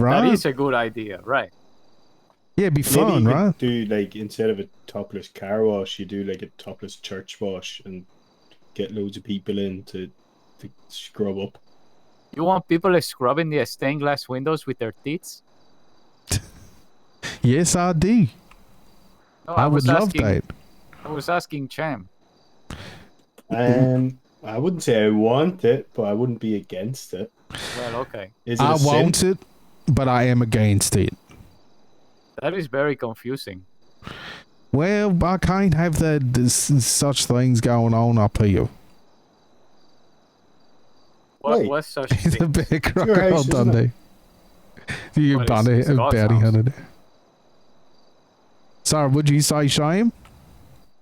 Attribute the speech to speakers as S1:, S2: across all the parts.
S1: right?
S2: That is a good idea, right?
S1: yeah, it'd be
S3: Maybe
S1: fun,
S3: you could
S1: right?
S3: do like instead of a topless car wash, you do like a topless church wash and get loads of people in to, to scrub up.
S2: You want people scrubbing the stained glass windows with their teeth?
S1: Yes, I do.
S3: Oh,
S2: No,
S1: I would
S2: was
S1: love
S2: asking,
S1: that.
S2: I was asking Cham.
S3: Um, I wouldn't say I want it, but I wouldn't be against it.
S2: Well, okay,
S3: Is it
S1: I
S3: a sin?
S1: want it, but I am against it.
S2: that is very confusing.
S1: Well, I can't have that this, such things going on up here
S2: What
S3: Wait.
S2: was such
S1: in the
S2: thing?
S1: background,
S3: your house, isn't
S1: Dundee. You
S2: Well, it's-
S1: bounty,
S2: it's God's
S1: bounty
S2: house.
S1: hunter. Sorry, would you say shame?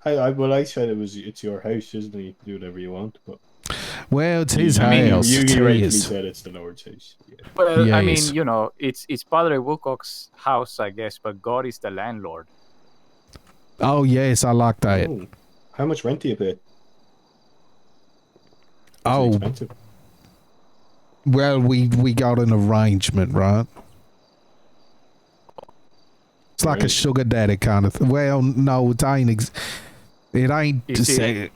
S3: I, I well, I said it was it's your house, isn't it? You can do whatever you want, but
S1: Well, it's his
S3: I mean,
S1: house.
S3: you,
S1: it's
S3: you rightly
S1: his.
S3: said it's the Lord's house. Yeah.
S2: Well, uh, I
S1: Yes.
S2: mean, you know, it's it's Padre Wilcox's house, I guess, but God is the landlord.
S1: Oh yes, I like that.
S3: Oh, how much rent do you pay? Is it
S1: Oh,
S3: expensive?
S1: well, we we got an arrangement, right? It's like a
S3: Right.
S1: sugar daddy kind of. Th- well, no, it ain't. Ex- it ain't.
S2: You
S1: to
S2: see-
S1: say-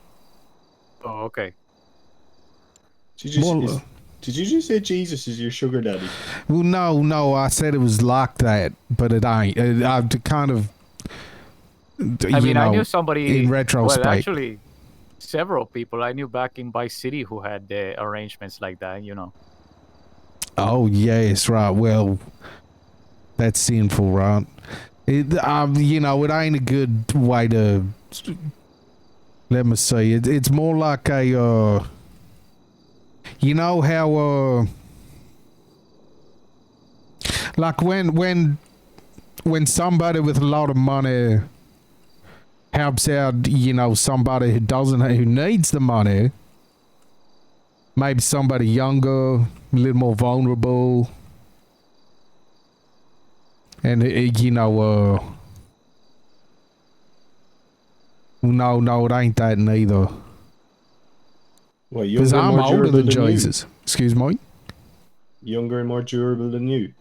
S2: Oh, okay.
S3: Did you,
S1: Well,
S3: is-
S1: uh,
S3: did you just say Jesus is your sugar daddy?
S1: Well, no, no, I said it was like that, but it ain't. It, I d- kind of. d-
S2: I
S1: you
S2: mean, I
S1: know,
S2: knew somebody
S1: in retrospect.
S2: Well, actually, several people I knew back in Vice City who had uh, arrangements like that. You know,
S1: Oh yes, right. Well, that's sinful, right? It, um, you know, it ain't a good way to. Let me see. It, it's more like a. Uh, you know how. Uh, like when when when somebody with a lot of money helps out, you know, somebody who doesn't who needs the money maybe somebody younger, a little more vulnerable, and it, it, you know, uh, no, no, it ain't that neither.
S3: Well,
S1: Because
S3: younger, and
S1: I'm
S3: more
S1: older
S3: durable
S1: than
S3: than
S1: Jesus. Excuse me.
S3: you. Younger and more durable than you.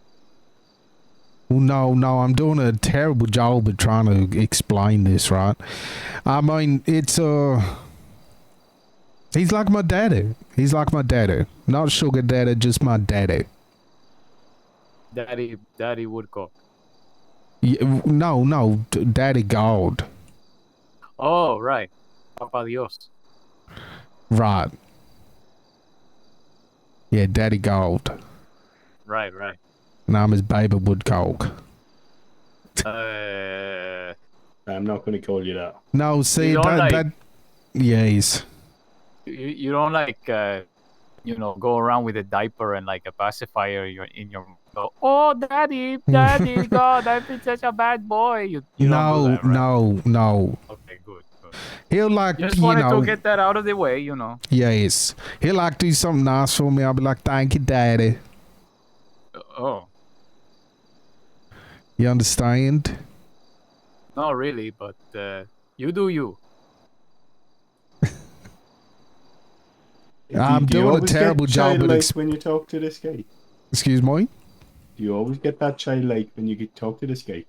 S1: Well, no, no, I'm doing a terrible job at trying to explain this, right? I mean, it's uh, he's like my daddy. He's like my daddy, not sugar daddy, just my daddy.
S2: Daddy Daddy Woodcock.
S1: Yeah, w- no, no, d- daddy God.
S2: Oh, right, Papa Dios.
S1: Right. Yeah, Daddy Gold.
S2: Right, right.
S1: And I'm his baby woodcock.
S2: Uh,
S3: I'm not going to call you that.
S1: No, see
S2: You
S1: that,
S2: don't like-
S1: that Yes.
S2: you, you don't like uh, you know go around with a diaper and like a pacifier you're in your go, oh daddy daddy god i've been such a bad boy you, you
S1: no,
S2: don't do that, right?
S1: no, no.
S2: okay good, good.
S1: He'll like
S2: just
S1: you
S2: wanted
S1: know
S2: to get that out of the way you know
S1: Yes. He'll like do something nice for me. I'll be like, Thank you, Daddy.
S2: oh
S1: You understand?
S2: not really but uh, you do you
S1: I'm
S3: Do you
S1: doing a
S3: always get
S1: terrible job at
S3: childlike
S1: ex-
S3: when you talk to this guy.
S1: Excuse me?
S3: Do you always get that childlike when you get talk to this guy?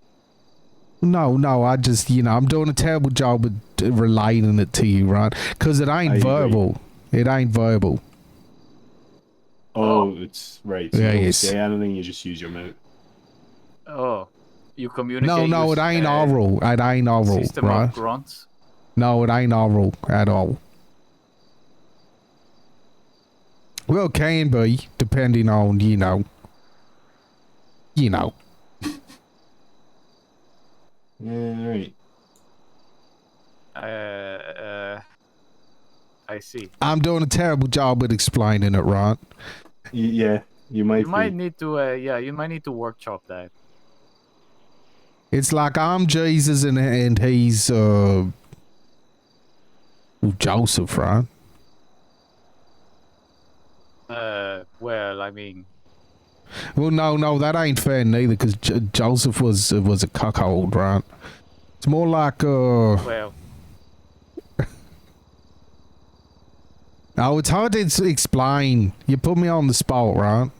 S1: No, no, I just you know, I'm doing a terrible job at uh, relating it to you, right? Cause it ain't
S3: I agree.
S1: verbal. It ain't verbal.
S3: Oh, it's right. So
S1: Yeah,
S3: you don't
S1: yes.
S3: say anything, you just use your mouth.
S2: oh you communicate
S1: No, no, it
S2: with,
S1: ain't
S2: uh,
S1: oral. It ain't oral,
S2: system
S1: right?
S2: of grunts
S1: No, it ain't oral at all. Well, it can be depending on you know, you know.
S3: Yeah, right.
S2: uh, uh, i see
S1: I'm doing a terrible job at explaining it, right?
S3: Y- Yeah, you might.
S2: you might
S3: be.
S2: need to uh, yeah you might need to workshop that
S1: It's like I'm Jesus and and he's uh Joseph, right?
S2: uh, well i mean
S1: Well, no, no, that ain't fair neither, because J- Joseph was was a cuckold, right? It's more like uh.
S2: well
S1: Oh, it's hard to s- explain. You put me on the spot, right?